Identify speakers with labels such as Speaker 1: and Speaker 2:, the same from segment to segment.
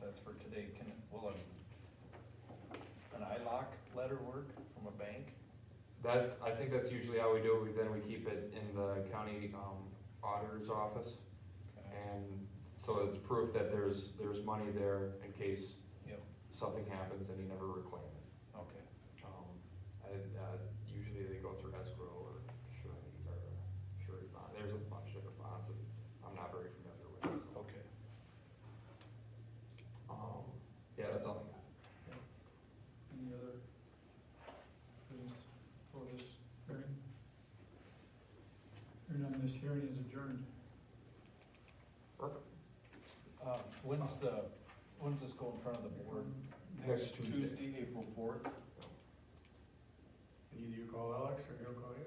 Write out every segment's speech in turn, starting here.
Speaker 1: that's for today, can, will an, an ILOC letter work from a bank?
Speaker 2: That's, I think that's usually how we do it, We- then we keep it in the county um, auditor's office,
Speaker 1: Okay.
Speaker 2: and so it's proof that there's, there's money there in case
Speaker 1: Yep,
Speaker 2: something happens and you never reclaim it.
Speaker 1: okay,
Speaker 2: Um, And uh, usually they go through escrow or surety, or surety bond, there's a bunch of different bonds that I'm not very familiar with. so.
Speaker 1: okay.
Speaker 2: Um, Yeah, that's all I got.
Speaker 3: Any other things for this hearing? Hearing on this hearing is adjourned.
Speaker 2: Perfect.
Speaker 1: Uh, when's the, when's this go in front of the board?
Speaker 2: Next Tuesday.
Speaker 1: April fourth.
Speaker 3: Either you call Alex or he'll call you.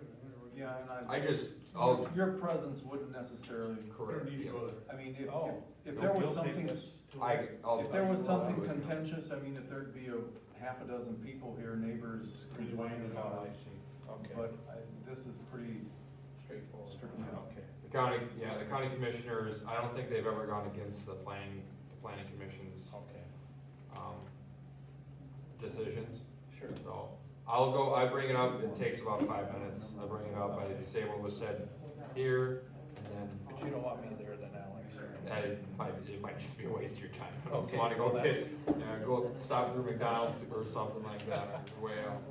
Speaker 4: Yeah, and I.
Speaker 2: I just, I'll,
Speaker 4: Your presence wouldn't necessarily,
Speaker 2: correct,
Speaker 3: need to
Speaker 2: yeah.
Speaker 3: go there.
Speaker 4: I mean, if,
Speaker 1: Oh.
Speaker 4: if, if there was
Speaker 1: You'll take
Speaker 4: something,
Speaker 1: this to-
Speaker 2: I, I'll.
Speaker 4: if there was something
Speaker 2: I would-
Speaker 4: contentious, I mean, if there'd be a half a dozen people here, neighbors complaining about
Speaker 1: I
Speaker 4: it.
Speaker 1: see, okay,
Speaker 4: But I, this is pretty
Speaker 1: straightforward,
Speaker 4: Strictly.
Speaker 1: okay,
Speaker 2: The county, yeah, the county commissioners, I don't think they've ever gone against the planning, the planning commission's,
Speaker 1: okay,
Speaker 2: um, decisions.
Speaker 1: sure.
Speaker 2: So, I'll go, I bring it up, it takes about five minutes, I bring it up, I say what was said here, and
Speaker 1: But you don't want me there then, Alex.
Speaker 2: then, I, it might, it might just be a waste of your time. I just
Speaker 1: Okay,
Speaker 2: wanna go
Speaker 1: well,
Speaker 2: get, yeah, go stop through McDonald's or something like that, way out.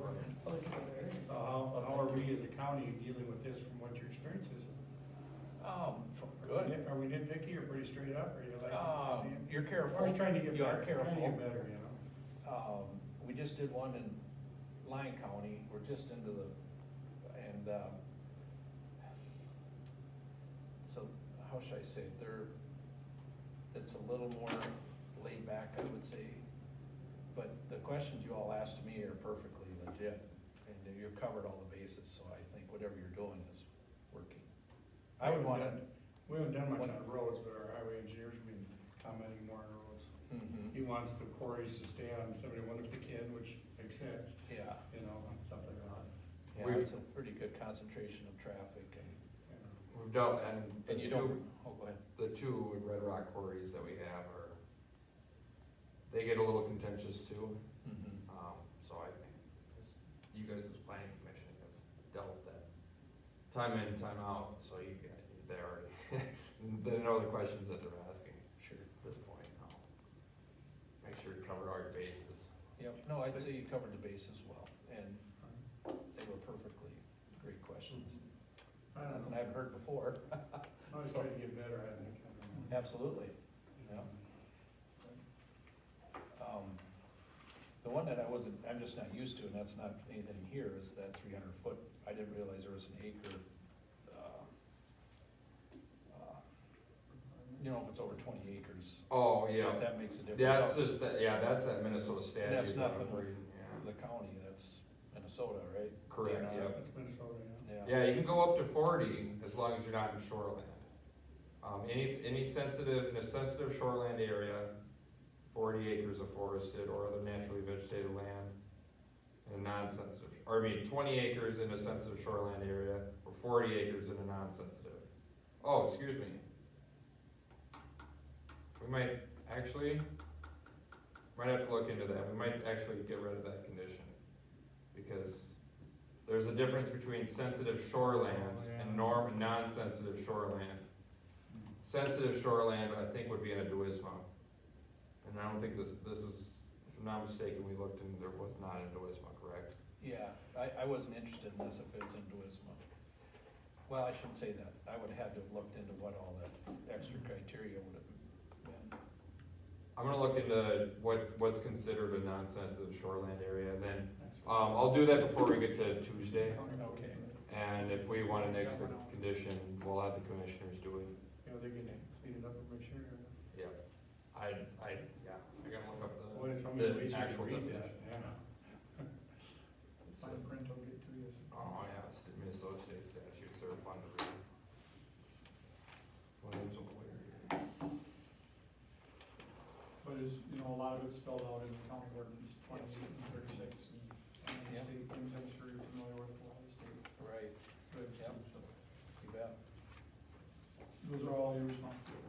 Speaker 3: So how, how are we as a county dealing with this from what your experience is?
Speaker 1: Um, good.
Speaker 3: Are we nitpicky or pretty straight up, or you like?
Speaker 1: Um, you're careful.
Speaker 3: I was trying to get
Speaker 1: You are
Speaker 3: better, trying to
Speaker 1: careful.
Speaker 3: get better, you know?
Speaker 1: Um, we just did one in Lyon County, we're just into the, and, um, so, how should I say, it? they're, it's a little more laid back, I would say. But the questions you all asked me are perfectly legit, and you've covered all the bases, so I think whatever you're doing is working. I would want to.
Speaker 3: We haven't done much on the roads, but our highway engineer's been commenting more on roads.
Speaker 2: Mm-hmm.
Speaker 1: mm-hmm,
Speaker 3: He wants the quarries to stay on seventy-one if they can, which makes sense,
Speaker 1: Yeah.
Speaker 3: you know, something like that.
Speaker 1: Yeah,
Speaker 2: We-
Speaker 1: it's a pretty good concentration of traffic and,
Speaker 3: you know.
Speaker 2: We've dealt, and.
Speaker 1: and you don't, oh, go ahead.
Speaker 2: the two in Red Rock quarries that we have are, they get a little contentious too, um, so I think this- you guys as planning commission have dealt with that time in, time out, so you, got- they already, they know the questions that they're asking
Speaker 1: Sure.
Speaker 2: at this point now. Make sure you cover all your bases.
Speaker 1: Yep, no, I'd say you covered the bases well, and they were perfectly great questions.
Speaker 3: I don't
Speaker 1: Nothing
Speaker 3: know,
Speaker 1: I've heard before.
Speaker 3: I was trying to get better, I think. I
Speaker 1: Mm-hmm.
Speaker 3: don't know.
Speaker 1: Absolutely, yeah. Um, The one that I wasn't, I'm just not used to, and that's not anything here, is that three hundred foot, I didn't realize there was an acre. uh, uh, You know, if it's over twenty acres,
Speaker 2: Oh,
Speaker 1: if
Speaker 2: yeah,
Speaker 1: that makes a difference.
Speaker 2: that's just, that. yeah, that's that Minnesota statute.
Speaker 1: that's
Speaker 2: that
Speaker 1: nothing
Speaker 2: I'm
Speaker 1: with-
Speaker 2: reading, yeah.
Speaker 1: the county, that's Minnesota, right?
Speaker 2: Correct,
Speaker 1: Yeah.
Speaker 2: yep.
Speaker 3: That's Minnesota, yeah.
Speaker 2: Yeah, you can go up to forty as long as you're not in shoreland. Um, any, any sensitive, in a sensitive shoreland area, forty acres of forested or other naturally vegetated land. In a non-sensitive, or I mean, twenty acres in a sensitive shoreland area, or forty acres in a non-sensitive. Oh, excuse me. We might actually, might have to look into that, we might actually get rid of that condition. Because there's a difference between sensitive shoreland and norm, non-sensitive shoreland. Sensitive shoreland, I think, would be in a duisma. And I don't think this, this is, if I'm not mistaken, we looked and there was not a duisma, correct?
Speaker 1: Yeah, I, I wasn't interested in this if it was in Duisma. Well, I shouldn't say that, I would have had to have looked into what all that extra criteria would have been.
Speaker 2: I'm gonna look into what, what's considered a non-sensitive shoreland area, and then, um, I'll do that before we get to Tuesday.
Speaker 1: Okay.
Speaker 2: And if we wanna nix the condition, we'll have the commissioners do it.
Speaker 3: You know, they can clean it up and make sure. you
Speaker 2: Yeah, I, I, yeah, I gotta look up
Speaker 3: know. What is
Speaker 2: the,
Speaker 3: somebody
Speaker 2: the
Speaker 3: ways you can
Speaker 2: actual
Speaker 3: read
Speaker 2: definition.
Speaker 3: that? Yeah.
Speaker 2: Fine
Speaker 3: print will get to you.
Speaker 2: Oh, yeah, it's the Minnesota State statutes are fun to read. Well, it's over here.
Speaker 3: But it's, you know, a lot of it's spelled out in the county ordinance, twenty-eight and thirty-six, and and the
Speaker 1: Yeah.
Speaker 3: state things I'm sure you're familiar with, a lot of state.
Speaker 1: Right,
Speaker 3: regs and
Speaker 1: Yep.
Speaker 3: stuff.
Speaker 1: you bet.
Speaker 3: Those are all your responsibilities.